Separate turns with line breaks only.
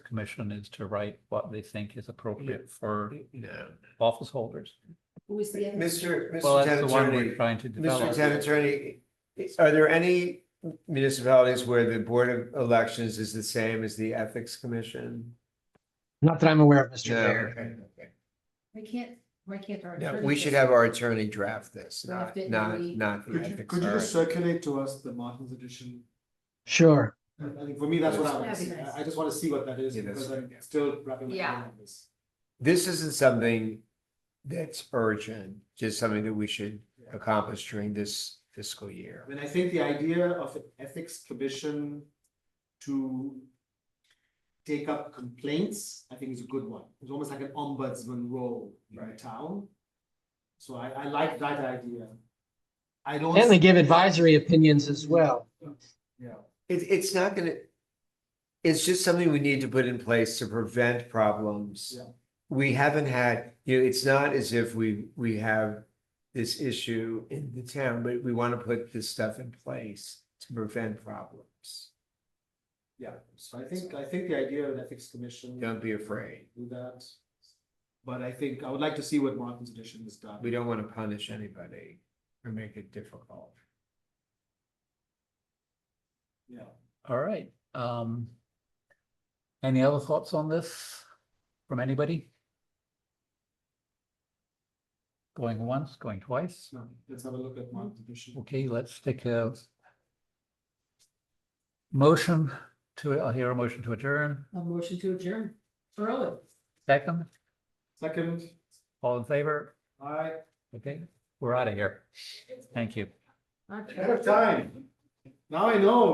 commission is to write what they think is appropriate for
No.
office holders.
Who was the other?
Mr.
Well,
Mr.
that's the
Town
one we're
Attorney,
trying to
Mr.
develop.
Town Attorney, are there any municipalities where the Board of Elections is the same as the Ethics Commission?
Not that I'm aware of, Mr.
No,
Mayor.
okay, okay.
We can't, why can't our?
No,
attorney
we should
just-
have our attorney draft this, not,
Draft it and
not,
we-
not the
Could you,
ethics.
could you just
All right.
circulate to us the Martin's edition?
Sure.
I I think for me, that's what I want to
That'd
see.
be nice.
I I just want to see what that is
Yeah, that's
because I'm
fine, yeah.
still wrapping my
Yeah.
head around this.
This isn't something that's urgent, just something that we should accomplish during this fiscal year.
I mean, I think the idea of an ethics commission to take up complaints, I think is a good one. It's almost like an ombudsman role in the
Right.
town. So I, I like that idea. I don't.
And they give advisory opinions as well.
Yeah.
It, it's not gonna, it's just something we need to put in place to prevent problems.
Yeah.
We haven't had, you know, it's not as if we, we have this issue in the town, but we want to put this stuff in place to prevent problems.
Yeah, so I think, I think the idea of an ethics commission.
Don't be afraid.
Do that. But I think, I would like to see what Martin's edition has done.
We don't want to punish anybody or make it difficult.
Yeah.
All right, um. Any other thoughts on this from anybody? Going once, going twice?
No, let's have a look at Martin's edition.
Okay, let's take a motion to, I'll hear a motion to adjourn.
A motion to adjourn. Throw it.
Second,
Second,
all in favor?
I.
Okay, we're out of here. Thank you.
Okay.
Ahead of time. Now I know.